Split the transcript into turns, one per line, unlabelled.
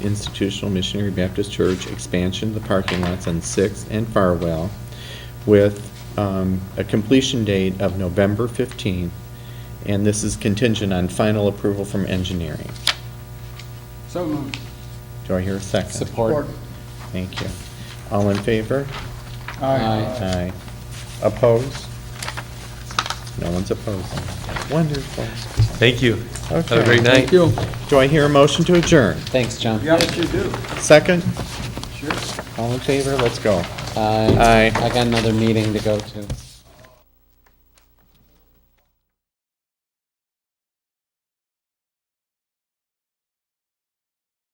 Institutional Missionary Baptist Church expansion of the parking lots on Sixth and Farwell with um, a completion date of November 15th, and this is contingent on final approval from engineering.
So moved.
Do I hear a second?
Support.
Thank you. All in favor?
Aye.
Aye. Opposed? No one's opposing. Wonderful.
Thank you. Have
Okay.
a great night.
Thank you.
Do I hear a motion to adjourn?
Thanks, John.
Yes, you do.
Second?
Sure.
All in favor? Let's go.
Aye.
Aye.
Uh, I got another meeting to go to.